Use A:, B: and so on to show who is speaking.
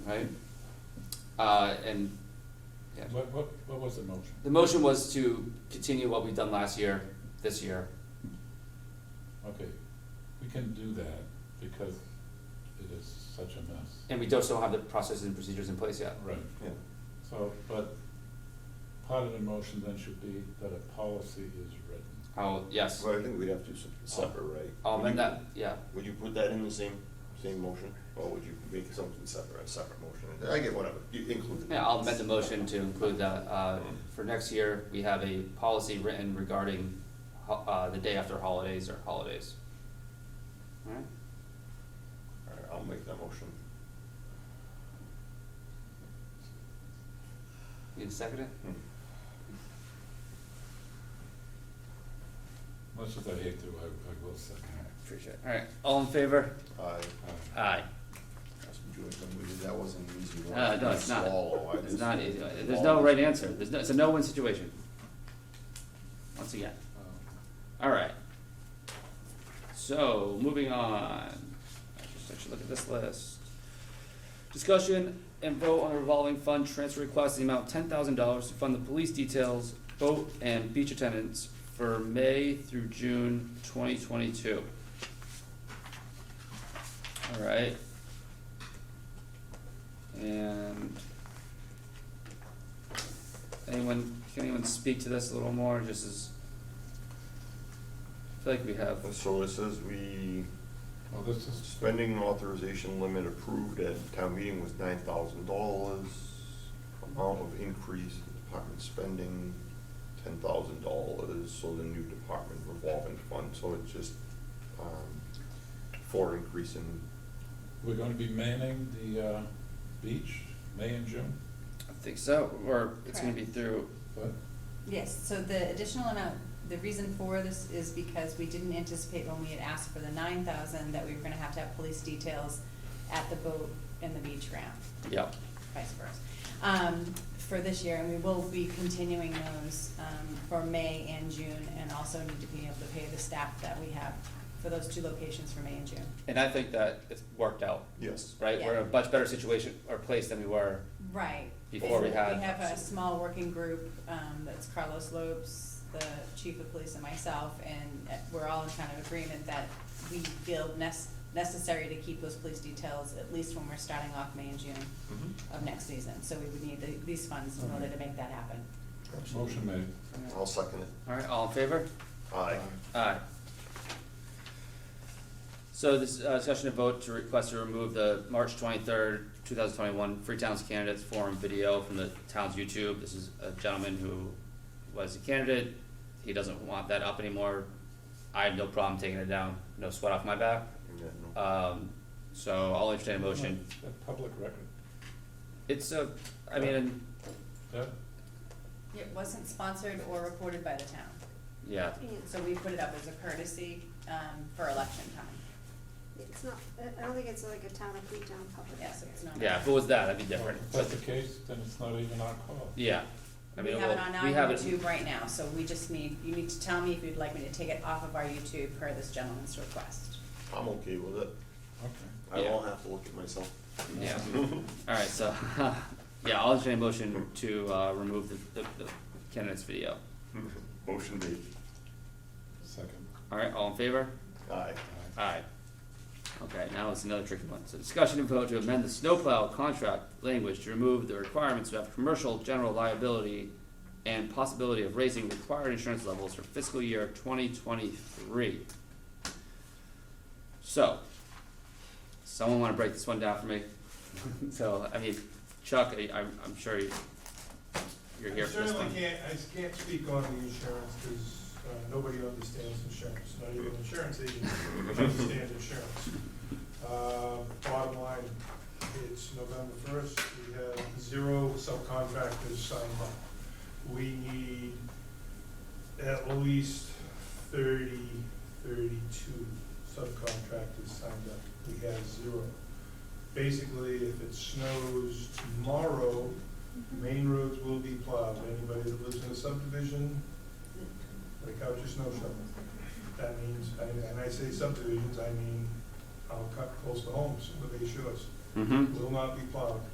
A: right? Uh, and, yeah.
B: What, what, what was the motion?
A: The motion was to continue what we've done last year, this year.
B: Okay, we can do that because it is such a mess.
A: And we just don't have the processes and procedures in place yet.
B: Right,
C: Yeah,
B: so, but part of the motion then should be that a policy is written.
A: Oh, yes.
C: well, I think we'd have to se- separate, right?
A: I'll
C: Would
A: amend
C: you-
A: Oh, that, yeah.
C: Would you put that in the same, same motion, or would you make something separate, a separate motion? I get whatever, you include it.
A: Yeah, I'll amend the motion to include that, uh, for next year, we have a policy written regarding, ho- uh, the day after holidays or holidays. Alright,
C: All right, I'll make that motion.
A: you second it?
C: Hmm.
B: Much as I hate to, I, I will second
A: Appreciate it. Alright, all in favor?
C: I,
B: it. Uh,
A: Aye.
C: that's what you were telling me, that wasn't an easy one.
A: Uh, no, it's not.
C: Swallow, I
A: It's
C: just-
A: not, easy. there's no right answer. There's no, it's a no-win situation. Once again.
B: um,
C: Oh.
A: All right. So moving on, I just actually look at this list. Discussion and vote on a revolving fund transfer request in the amount of ten thousand dollars to fund the police details, boat and beach attendants for May through June twenty twenty-two. All right. And anyone, can anyone speak to this a little more, just as I feel like we have
C: And So it says we,
B: Well, this is,
C: spending authorization limit approved at town meeting was nine thousand dollars. Amount of increase in department spending, ten thousand dollars, so the new department revolving fund, so it's just, um, for increase in,
B: we're gonna be manning the, uh, beach, May and June,
A: I think so, or it's gonna be
D: Correct.
A: through,
B: but,
D: Yes, so the additional amount, the reason for this is because we didn't anticipate when we had asked for the nine thousand that we were gonna have to have police details at the boat and the beach ramp,
A: yep,
D: vice versa. Um, for this year, and we will be continuing those, um, for May and June, and also need to be able to pay the staff that we have for those two locations for May and June.
A: and I think that it's worked out,
C: yes.
A: right? We're in a
D: Yeah.
A: much better situation or place than we were,
D: Right.
A: Before we had-
D: We have a small working group, um, that's Carlos Lopes, the chief of police and myself, and uh, we're all in kind of agreement that we feel nes- necessary to keep those police details, at least when we're starting off May and June
A: Mm-hmm.
D: of next season. So we would need the, these funds in order to make that happen.
C: Absolutely.
B: motion made.
C: I'll second it.
A: alright, all in favor?
C: Aye.
A: Aye. So this, uh, discussion of vote to request to remove the March twenty-third, two thousand twenty-one Free Towns Candidates Forum video from the town's YouTube. This is a gentleman who was a candidate, he doesn't want that up anymore. I have no problem taking it down, no sweat off my back,
C: Yeah, no.
A: um, so I'll entertain a motion.
B: A Public record,
A: It's a, I mean,
B: Deb?
D: It wasn't sponsored or reported by the town,
A: yeah,
D: so we put it up as a courtesy, um, for election time.
E: It's not, I- I don't think it's like a town of Freetown public.
D: Yes, it's not.
A: yeah, if it was that, that'd be different,
B: If
A: but,
B: that's the case, then it's not even our call.
A: yeah. I
D: We
A: mean,
D: have it
A: well,
D: on
A: we
D: our
A: have it-
D: YouTube right now, so we just need, you need to tell me if you'd like me to take it off of our YouTube per this gentleman's request.
C: I'm okay with it.
B: Okay,
C: I
A: Yeah.
C: won't have to look at myself.
A: Yeah, alright, so, yeah, I'll entertain a motion to, uh, remove the, the, the candidates video.
C: Motion made.
B: second.
A: Alright, all in favor?
C: Aye.
B: Aye.
A: Aye. Okay, now it's another tricky one. So discussion and vote to amend the snowplow contract language to remove the requirements to have commercial general liability and possibility of raising required insurance levels for fiscal year twenty twenty-three. So, someone wanna break this one down for me? So, I mean, Chuck, I, I'm, I'm sure you, you're here for this one.
F: I certainly can't, I can't speak on the insurance, because nobody understands insurance, not even insurance agents understand insurance. Uh, Bottom line, it's November first, we have zero subcontractors signed up. We need at least 30, 32 subcontractors signed up. We have zero. Basically, if it snows tomorrow, Main roads will be plowed, anybody that lives in a subdivision, break out your snow shovel. That means, and and I say subdivisions, I mean, I'll cut close to homes, with these shores,
A: Mm-hmm,
F: will not be plowed.